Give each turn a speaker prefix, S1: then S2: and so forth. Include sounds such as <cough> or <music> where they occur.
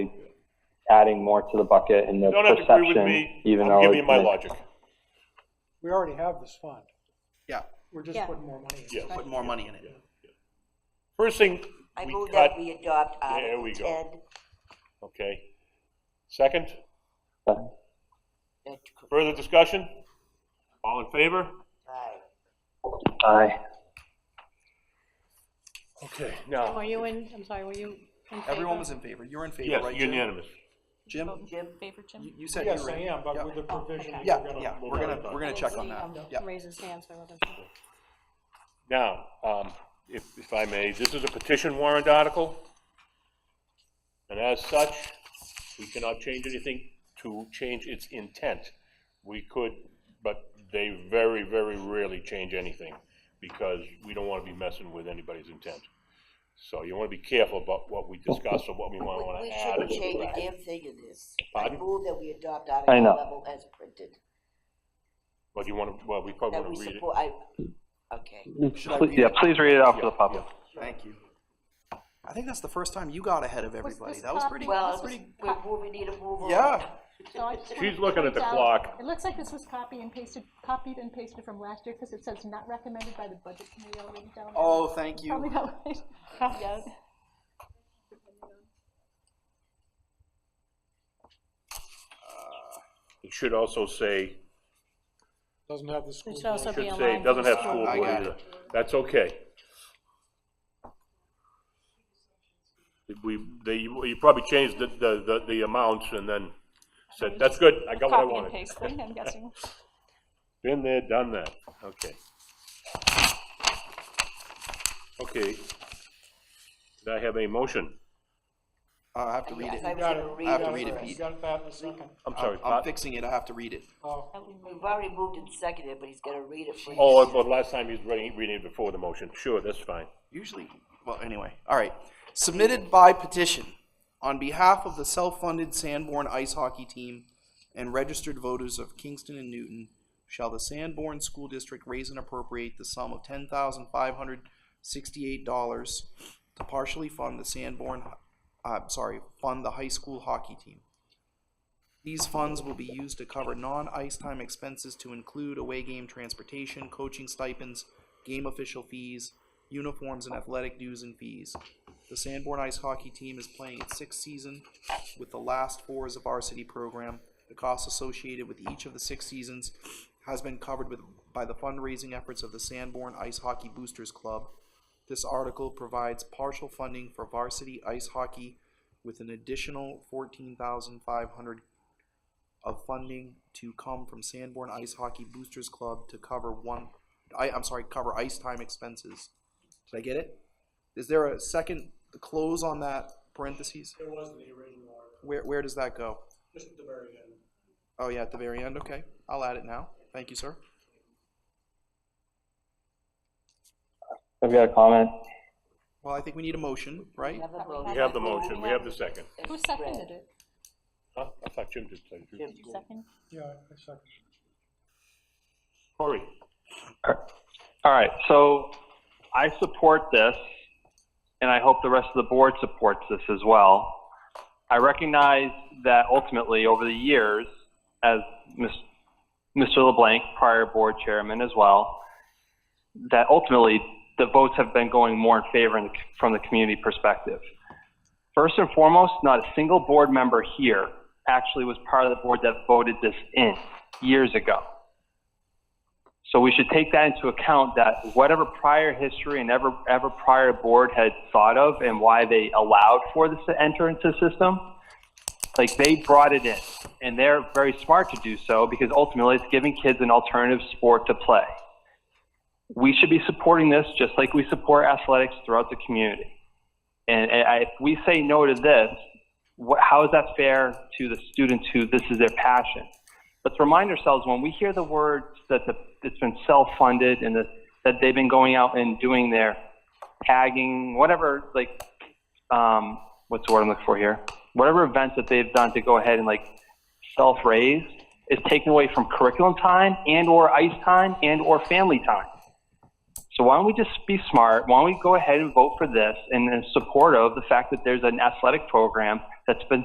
S1: adding more to the bucket and the
S2: You don't have to agree with
S1: perception,
S2: me.
S1: even though.
S2: I'm giving you
S1: it
S2: my
S1: may-
S2: logic.
S3: We already have this fund.
S4: Yeah,
S3: We're just
S5: Yeah.
S3: putting more money in.
S2: Yeah.
S4: put more money in it.
S2: First thing,
S5: I
S2: we
S5: move
S2: cut,
S5: that we adopt
S2: There
S5: Article
S2: we go.
S5: 10.
S2: okay. Second,
S1: but-
S5: That's correct.
S2: further discussion? All in favor?
S5: uh,
S1: Aye.
S2: Okay.
S6: Tim, Were
S2: Now,
S6: you in, I'm sorry, were you in favor?
S4: Everyone was in favor. You're in favor,
S2: yes,
S4: right, Jim?
S2: unanimous.
S4: Jim,
S6: Vote in favor,
S4: you
S6: Jim?
S4: you said you
S3: Yes,
S4: were
S3: I
S4: in.
S3: am,
S4: Yeah.
S3: but with the provision. that
S6: okay.
S4: Yeah,
S3: we're gonna-
S4: yeah,
S2: we'll
S4: we're
S2: worry
S4: gonna,
S2: about
S4: we're
S6: I
S4: gonna
S6: didn't
S4: check
S6: see
S4: on that.
S6: him
S4: Yeah,
S6: Raise his hand, so I wasn't.
S2: Now, um, if, if I may, this is a petition warrant article. And as such, we cannot change anything to change its intent. We could, but they very, very rarely change anything because we don't want to be messing with anybody's intent. So you want to be careful about what we discuss or what we want
S5: We-
S2: want
S5: We
S2: to add. or
S5: shouldn't change a
S2: subtract.
S5: damn thing in this. I
S2: Pardon?
S5: move that we adopt
S1: I
S5: Article
S1: know.
S5: 11 as printed.
S2: But you want to, well, we probably
S5: That
S2: want
S5: we
S2: to read it.
S5: support, I, okay.
S4: Should I
S1: Please-
S4: read
S1: Yeah,
S4: it?
S1: please read it out for the public.
S4: thank you. I think that's the first time you got ahead of everybody.
S6: this
S4: That was
S6: copy?
S4: pretty,
S5: Well,
S4: that's pretty,
S5: we're moving, need a move on.
S4: yeah.
S6: So I just
S2: She's
S6: wanted to
S2: looking at
S6: point
S2: the
S6: out,
S2: clock.
S6: It looks like this was copied and pasted, copied and pasted from last year, because it says not recommended by the budget committee already down there.
S4: Oh, thank
S6: Probably
S4: you. <laughs>
S6: that way. Yes.
S2: It should also say,
S3: Doesn't have the school.
S6: It should also
S2: should
S6: be
S2: say,
S6: aligned.
S2: doesn't have
S6: with-
S2: school
S4: I
S2: board
S4: got
S2: either. That's okay. We, they, you you probably changed the, the, the- the amounts and then said, that's good, I got what I
S6: Copy
S2: wanted.
S6: and paste thing, I'm <laughs> guessing.
S2: Been there, done that, okay. Okay. Did I have a motion?
S4: I have to read
S5: Yes,
S4: it.
S5: I
S3: Got
S5: was
S3: it.
S5: gonna read
S4: I have to
S3: Got
S4: read it,
S3: You
S4: Pete.
S3: got that in a second.
S2: I'm sorry,
S4: I'm I'm
S2: Pat?
S4: fixing it. I have to read it.
S3: Oh,
S5: We've already moved and seconded, but he's gonna read it for you.
S2: Oh, but last time he was reading, reading it before the motion, sure, that's fine.
S4: usually, well, anyway, all right. Submitted by petition on behalf of the self-funded Sanborn Ice Hockey Team and registered voters of Kingston and Newton, shall the Sanborn School District raise and appropriate the sum of ten thousand five hundred sixty-eight dollars to partially fund the Sanborn, uh, sorry, fund the high school hockey team. These funds will be used to cover non-ice time expenses to include away game transportation, coaching stipends, game official fees, uniforms and athletic dues and fees. The Sanborn Ice Hockey Team is playing its sixth season with the last four as a varsity program. The costs associated with each of the six seasons has been covered with, by the fundraising efforts of the Sanborn Ice Hockey Boosters Club. This article provides partial funding for varsity ice hockey with an additional fourteen thousand five hundred of funding to come from Sanborn Ice Hockey Boosters Club to cover one, I, I'm sorry, cover ice time expenses. Did I get it? Is there a second close on that parentheses?
S3: It wasn't the original order,
S4: Where, where does that go?
S3: just at the very end.
S4: Oh, yeah, at the very end, okay. I'll add it now. Thank you, sir.
S1: I've got a comment.
S4: Well, I think we need a motion, right?
S5: We have a vote.
S2: We have the motion, we have the second.
S6: Who seconded it?
S2: Huh? I thought Jim did say.
S5: Jim
S6: Did you
S5: did.
S6: second?
S3: Yeah, I second.
S2: Corey,
S1: All right, so I support this, and I hope the rest of the board supports this as well. I recognize that ultimately, over the years, as Ms- Mr. LeBlanc, prior board chairman as well, that ultimately, the votes have been going more in favor in the c- from the community perspective. First and foremost, not a single board member here actually was part of the board that voted this in years ago. So we should take that into account that whatever prior history and ever, ever prior board had thought of and why they allowed for this to enter into the system, like they brought it in and they're very smart to do so because ultimately it's giving kids an alternative sport to play. We should be supporting this just like we support athletics throughout the community. And, and I, if we say no to this, what, how is that fair to the students who this is their passion? let's remind ourselves when we hear the words that the, it's been self-funded and that, that they've been going out and doing their tagging, whatever, like, um, what's the word I'm looking for here? Whatever events that they've done to go ahead and like self-raise is taken away from curriculum time and or ice time and or family time. So why don't we just be smart? Why don't we go ahead and vote for this and in support of the fact that there's an athletic program that's been